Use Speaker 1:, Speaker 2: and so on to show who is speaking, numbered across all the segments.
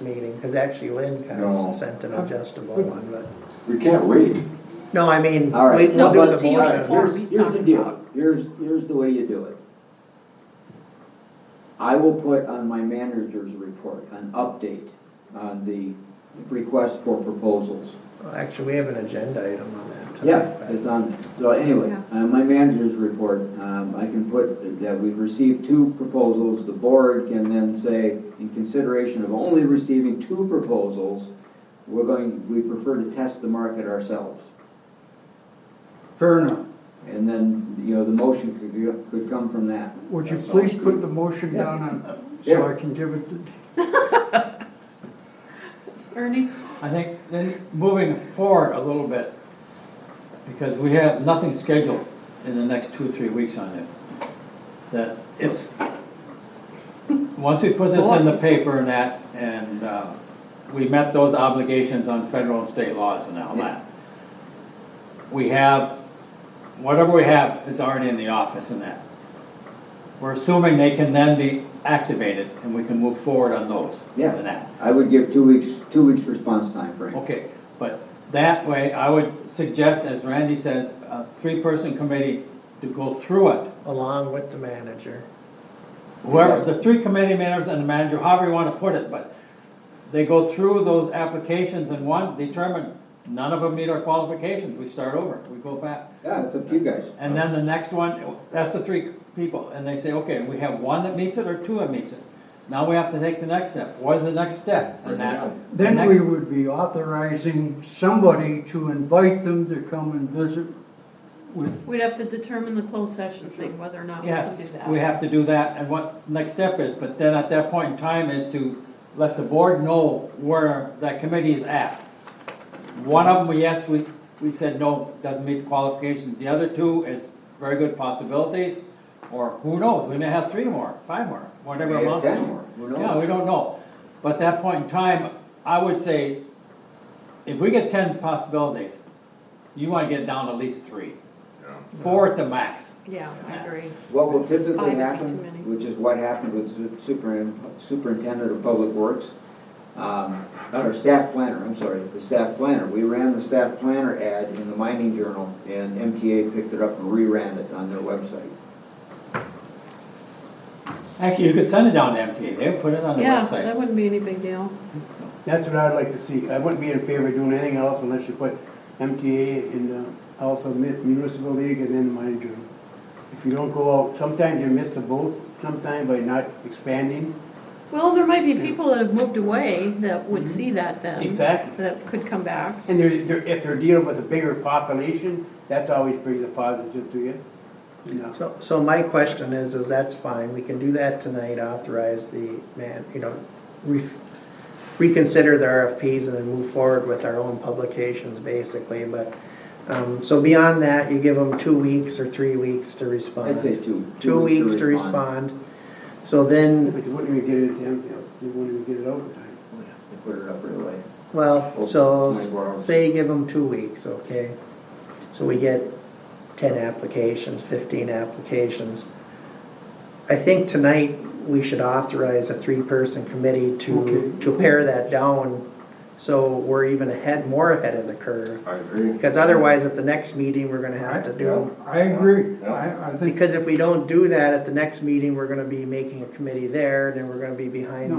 Speaker 1: meeting, because actually Lynn kind
Speaker 2: No.
Speaker 1: of sent an adjustable one, but,
Speaker 2: We can't wait.
Speaker 1: no, I mean,
Speaker 3: All right.
Speaker 1: we- we'll
Speaker 4: No,
Speaker 1: do the
Speaker 4: just to use the
Speaker 1: motion.
Speaker 4: form
Speaker 3: Here's,
Speaker 4: he's
Speaker 3: here's the
Speaker 4: talking
Speaker 3: deal,
Speaker 4: about.
Speaker 3: here's, here's the way you do it. I will put on my manager's report, an update on the request for proposals.
Speaker 1: Well, Actually, we have an agenda item on that.
Speaker 3: Yeah,
Speaker 1: tonight,
Speaker 3: it's on there. So anyway,
Speaker 4: Yeah.
Speaker 3: uh, my manager's report, um, I can put that we've received two proposals. The board can then say, in consideration of only receiving two proposals, we're going, we prefer to test the market ourselves.
Speaker 5: Fair enough.
Speaker 3: And then, you know, the motion could, could come from that.
Speaker 5: Would you
Speaker 2: That sounds
Speaker 5: please put
Speaker 2: good.
Speaker 5: the motion down on,
Speaker 3: Yeah.
Speaker 5: so I can give it, to-
Speaker 4: Ernie?
Speaker 6: I think then moving forward a little bit, because we have nothing scheduled in the next two, three weeks on this. That it's, once we put this in the paper and that, and uh, we met those obligations on federal and state laws and all that. We have, whatever we have is already in the office and that. We're assuming they can then be activated and we can move forward on those
Speaker 3: Yeah.
Speaker 6: and that.
Speaker 3: I would give two weeks, two weeks response time frame.
Speaker 6: Okay, but that way, I would suggest, as Randy says, a three-person committee to go through it.
Speaker 1: Along with the manager.
Speaker 6: Whoever, the three committee members and the manager, however you want to put it, but they go through those applications and one, determine, none of them meet our qualifications, we start over, we go back.
Speaker 3: Yeah, it's up to you guys.
Speaker 6: And then the next one, that's the three people, and they say, okay, we have one that meets it or two that meets it. Now we have to take the next step, what is the next step? And that, the
Speaker 5: then
Speaker 6: next-
Speaker 5: we would be authorizing somebody to invite them to come and visit with,
Speaker 4: We'd have to determine the closed session thing, whether or not we can do
Speaker 6: Yes,
Speaker 4: that.
Speaker 6: we have to do that, and what next step is, but then at that point in time is to let the board know where that committee is at. One of them, we yes, we, we said no, doesn't meet the qualifications, the other two is very good possibilities, or who knows, we may have three more, five more, whatever
Speaker 3: Maybe
Speaker 6: amounts
Speaker 3: ten
Speaker 6: to.
Speaker 3: more, who knows?
Speaker 6: Yeah, we don't know, but at that point in time, I would say, if we get ten possibilities, you wanna get down to at least three, four at the max.
Speaker 4: Yeah, I agree.
Speaker 3: What will typically
Speaker 4: Five would be too many.
Speaker 3: happen, which is what happened with su- super- superintendent of public works, um, or staff planner, I'm sorry, the staff planner. We ran the staff planner ad in the mining journal, and MTA picked it up and reran it on their website.
Speaker 6: Actually, you could send it down to MTA, they would put it on the
Speaker 4: Yeah, that
Speaker 6: website.
Speaker 4: wouldn't be any big deal.
Speaker 7: That's what I'd like to see. I wouldn't be in favor of doing anything else unless you put MTA and uh, also Mi- Municipal League and then the Mine Journal. If you don't go out, sometimes you miss the boat, sometimes by not expanding.
Speaker 4: Well, there might be people that have moved away that
Speaker 6: Mm-hmm.
Speaker 4: would see that then.
Speaker 7: Exactly.
Speaker 4: That could come back.
Speaker 7: And they're, they're, if they're dealing with a bigger population, that's always brings a positive to you. you know.
Speaker 1: So, so my question is, is that's fine, we can do that tonight, authorize the man, you know, re- reconsider the RFPs and then move forward with our own publications, basically, but, um, so beyond that, you give them two weeks or three weeks to respond.
Speaker 3: I'd say two.
Speaker 1: Two weeks to respond, so then,
Speaker 7: But you wouldn't even get it, in, you know, you wouldn't even get it overtime.
Speaker 3: They put it up right away.
Speaker 2: Oh,
Speaker 1: well, so,
Speaker 3: Twenty-four hours.
Speaker 1: say you give them two weeks, okay? So we get ten applications, fifteen applications. I think tonight, we should authorize a three-person committee to,
Speaker 5: Okay.
Speaker 1: to pare that down, so we're even ahead, more ahead of the curve.
Speaker 2: I agree.
Speaker 1: Because otherwise, at the next meeting, we're gonna have to do,
Speaker 5: I agree,
Speaker 2: Yeah.
Speaker 5: I, I think,
Speaker 1: because if we don't do that, at the next meeting, we're gonna be making a committee there, then we're gonna be
Speaker 5: No.
Speaker 1: behind
Speaker 5: I- I-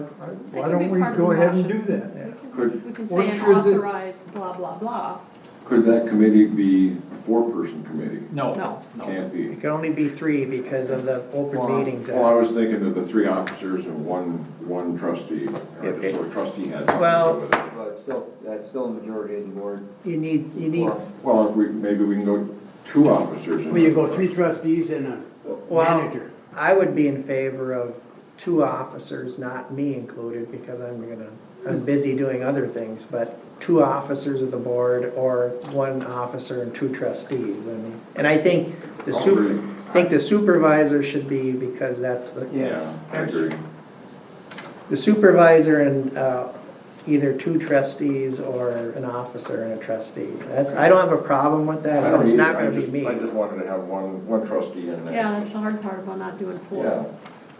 Speaker 4: That
Speaker 5: why
Speaker 4: could
Speaker 5: don't
Speaker 4: be
Speaker 5: we
Speaker 4: part of
Speaker 5: go
Speaker 4: the
Speaker 5: ahead and do
Speaker 4: motion.
Speaker 5: that?
Speaker 2: Could,
Speaker 4: We can
Speaker 5: What
Speaker 4: say an
Speaker 5: should the-
Speaker 4: authorized blah, blah, blah.
Speaker 2: could that committee be a four-person committee?
Speaker 6: No,
Speaker 4: No.
Speaker 6: no.
Speaker 2: Can't be.
Speaker 1: It can only be three because of the open meetings.
Speaker 2: Well, I
Speaker 1: Act.
Speaker 2: was thinking of the three officers and one, one trustee, or just so a trustee had something to
Speaker 1: Well-
Speaker 2: do with it.
Speaker 3: But it's still, that's still a majority of the board.
Speaker 1: You need, you need,
Speaker 3: Well,
Speaker 2: Well, if we, maybe we can go two officers. and
Speaker 7: Well, you
Speaker 2: one
Speaker 7: go
Speaker 2: trustee.
Speaker 7: three trustees and a
Speaker 1: Well-
Speaker 7: manager.
Speaker 1: I would be in favor of two officers, not me included, because I'm gonna, I'm busy doing other things, but two officers of the board or one officer and two trustees, I mean. And I think the
Speaker 2: All
Speaker 1: super,
Speaker 2: three.
Speaker 1: I think the supervisor should be, because that's the,
Speaker 2: Yeah, I agree.
Speaker 1: the supervisor and, uh, either two trustees or an officer and a trustee. That's, I don't have a problem with that,
Speaker 2: I
Speaker 1: but
Speaker 2: don't
Speaker 1: it's
Speaker 2: either.
Speaker 1: not
Speaker 2: I
Speaker 1: gonna be
Speaker 2: just-
Speaker 1: me.
Speaker 2: I just wanted to have one, one trustee in there.
Speaker 4: Yeah, that's the hard part about not doing
Speaker 2: Yeah,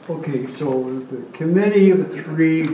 Speaker 4: four.
Speaker 5: Okay, so the committee of three